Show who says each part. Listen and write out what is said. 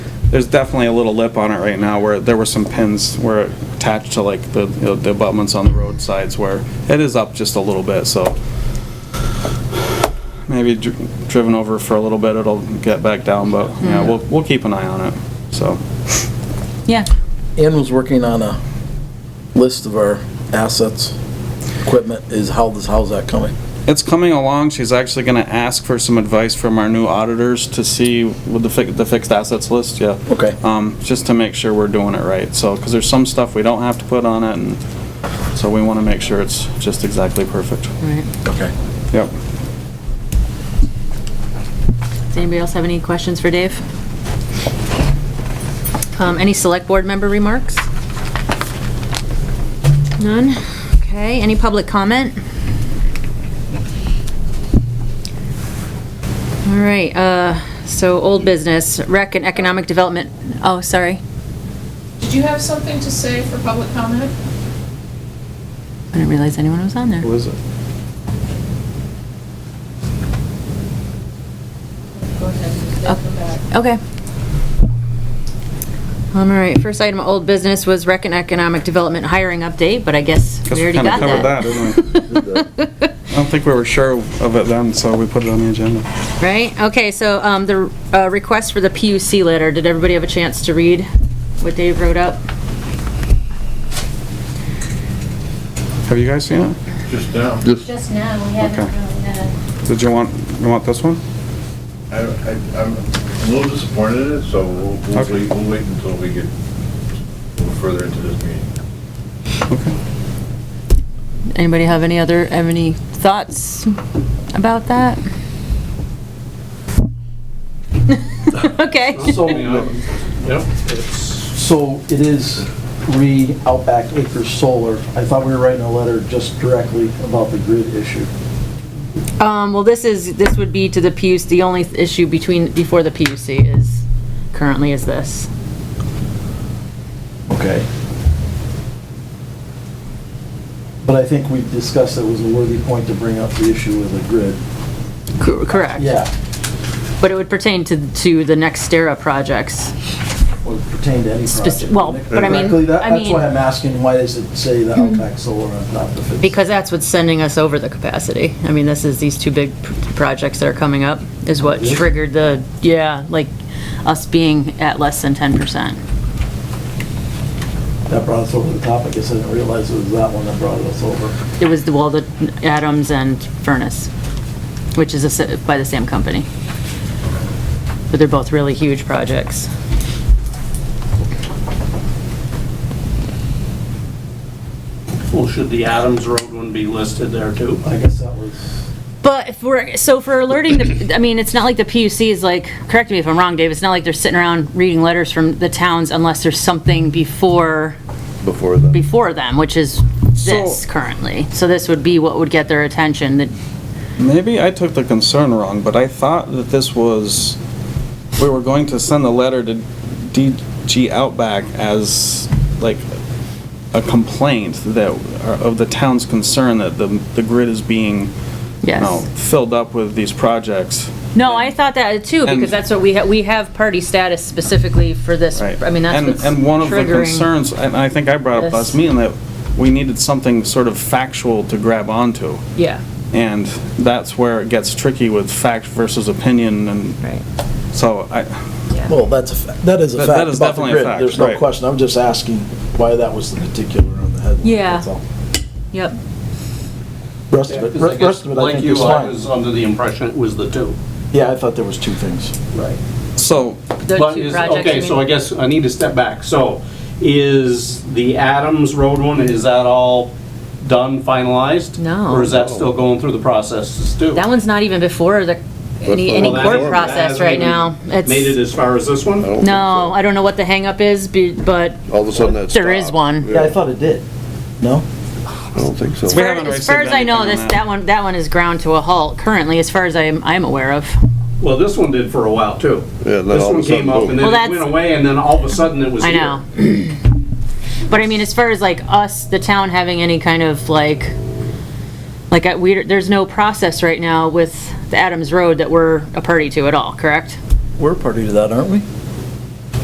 Speaker 1: there's definitely a little lip on it right now where there were some pins where it attached to like the, you know, the abutments on the roadsides where it is up just a little bit, so. Maybe dr- driven over for a little bit, it'll get back down, but yeah, we'll, we'll keep an eye on it, so.
Speaker 2: Yeah,
Speaker 3: Ann was working on a list of our assets, equipment, is how this, how's that coming?
Speaker 1: It's coming along. She's actually going to ask for some advice from our new auditors to see with the fi- the fixed assets list, yeah.
Speaker 3: Okay.
Speaker 1: Um, just to make sure we're doing it right. So, because there's some stuff we don't have to put on it and so we want to make sure it's just exactly perfect.
Speaker 2: right.
Speaker 3: Okay.
Speaker 1: Yep.
Speaker 2: Does anybody else have any questions for Dave? Um, any select board member remarks? None? Okay, any public comment? All right, uh, so old business, rec and economic development, oh, sorry.
Speaker 4: Did you have something to say for public comment?
Speaker 2: I didn't realize anyone was on there.
Speaker 1: Who is it?
Speaker 4: Go ahead, they'll come back.
Speaker 2: Okay. All right, first item of old business was rec and economic development hiring update, but I guess
Speaker 1: Guess
Speaker 2: we
Speaker 1: we
Speaker 2: already
Speaker 1: kinda
Speaker 2: got
Speaker 1: covered
Speaker 2: that.
Speaker 1: that, I don't think we were sure of it then, so we put it on the agenda.
Speaker 2: Right, okay, so, um, the, uh, request for the PUC letter, did everybody have a chance to read what Dave wrote up?
Speaker 1: Have you guys seen it?
Speaker 5: Just now.
Speaker 6: Just now, we haven't
Speaker 1: Okay.
Speaker 6: really had a,
Speaker 1: Did you want, you want this one?
Speaker 5: I, I, I'm a little disappointed in it, so we'll, we'll
Speaker 1: Okay.
Speaker 5: wait, we'll wait until we get a little further into this meeting.
Speaker 1: Okay.
Speaker 2: Anybody have any other, have any thoughts about that? Okay.
Speaker 7: So, yep, it's,
Speaker 8: So it is re Outback Acres Solar. I thought we were writing a letter just directly about the grid issue.
Speaker 2: Um, well, this is, this would be to the PUC, the only issue between, before the PUC is, currently is this.
Speaker 8: Okay. But I think we discussed it was a worthy point to bring up the issue with the grid.
Speaker 2: Cor- Correct.
Speaker 8: Yeah,
Speaker 2: But it would pertain to, to the NextEra projects.
Speaker 8: would pertain to any
Speaker 2: Spec-
Speaker 8: project.
Speaker 2: well, but I mean-
Speaker 8: Directly, that-
Speaker 2: I
Speaker 8: That's
Speaker 2: mean- Hmm.
Speaker 8: why I'm asking, why does it say the Outback Solar on top of it?
Speaker 2: Because that's what's sending us over the capacity. I mean, this is, these two big pr- projects that are coming up is what
Speaker 8: Really?
Speaker 2: triggered the, yeah, like, us being at less than 10%.
Speaker 8: That brought us over the top. I guess I didn't realize it was that one that brought us over.
Speaker 2: It was the, well, the Adams and Furnace, which is a s- by the same company. But they're both really huge projects.
Speaker 7: well, should the Adams Road one be listed there too?
Speaker 8: I guess that was.
Speaker 2: But if we're, so for alerting, the I mean, it's not like the PUC is like, correct me if I'm wrong, Dave, it's not like they're sitting around reading letters from the towns unless there's something before,
Speaker 5: Before the.
Speaker 2: before them, which is this
Speaker 1: So-
Speaker 2: currently. So this would be what would get their attention, that,
Speaker 1: Maybe I took the concern wrong, but I thought that this was, we were going to send a letter to DG Outback as like a complaint that, uh, of the town's concern that the, the grid is being, you know,
Speaker 2: yes.
Speaker 1: filled up with these projects.
Speaker 2: No, I thought that too,
Speaker 1: And-
Speaker 2: because that's what we, ha- we have party status specifically for this,
Speaker 1: Right.
Speaker 2: I mean, that's
Speaker 1: And-
Speaker 2: what's
Speaker 1: And one of the
Speaker 2: triggering-
Speaker 1: concerns, and I think I brought up
Speaker 2: this.
Speaker 1: last meeting, that we needed something sort of factual to grab onto.
Speaker 2: Yeah,
Speaker 1: And that's where it gets tricky with fact versus opinion and
Speaker 2: right.
Speaker 1: so I,
Speaker 3: Well, that's, a fa- that is a
Speaker 1: That-
Speaker 3: fact.
Speaker 1: that is
Speaker 3: about the
Speaker 1: definitely a
Speaker 3: grid.
Speaker 1: fact,
Speaker 3: There's no
Speaker 1: right.
Speaker 3: question. I'm just asking why that was the particular on the headline.
Speaker 2: Yeah.
Speaker 3: that's all.
Speaker 2: Yep.
Speaker 3: Rest of it, re- rest of it, I
Speaker 7: Like
Speaker 3: think
Speaker 7: you,
Speaker 3: is
Speaker 7: I
Speaker 3: fine.
Speaker 7: was under the impression it was the two.
Speaker 3: Yeah, I thought there was two things.
Speaker 7: Right.
Speaker 1: so
Speaker 2: Those
Speaker 7: But
Speaker 2: two
Speaker 7: is-
Speaker 2: projects, you
Speaker 7: Okay,
Speaker 2: mean?
Speaker 7: so I guess I need to step back. So is the Adams Road one, is that all done, finalized?
Speaker 2: No.
Speaker 7: Or is that still going through the processes too?
Speaker 2: That one's not even before the, any,
Speaker 5: the-
Speaker 2: any
Speaker 7: Well, that
Speaker 2: court
Speaker 7: hasn't- that
Speaker 2: process
Speaker 7: hasn't
Speaker 2: right
Speaker 7: even
Speaker 2: now. It's-
Speaker 7: Made it as far as this one?
Speaker 2: No, I don't know what the hangup is, be- but
Speaker 5: All of a sudden that's.
Speaker 2: there is one.
Speaker 8: Yeah, I thought it did. No?
Speaker 5: I don't think so.
Speaker 2: As far-
Speaker 1: haven't
Speaker 2: as far as
Speaker 1: received
Speaker 2: I know,
Speaker 1: anything on
Speaker 2: this,
Speaker 1: that.
Speaker 2: that one, that one is ground to a halt currently, as far as I'm, I'm aware of.
Speaker 7: Well, this one did for a while too.
Speaker 5: Yeah, and then
Speaker 7: This
Speaker 5: all of a
Speaker 7: one
Speaker 5: sudden,
Speaker 7: came up
Speaker 5: boom.
Speaker 7: and
Speaker 2: Well,
Speaker 7: then it
Speaker 2: that's-
Speaker 7: went away and then all of a sudden it was
Speaker 2: I
Speaker 7: here.
Speaker 2: know. But I mean, as far as like us, the town having any kind of like, like, I- we, there's no process right now with the Adams Road that we're a party to at all, correct?
Speaker 3: We're party to that, aren't we?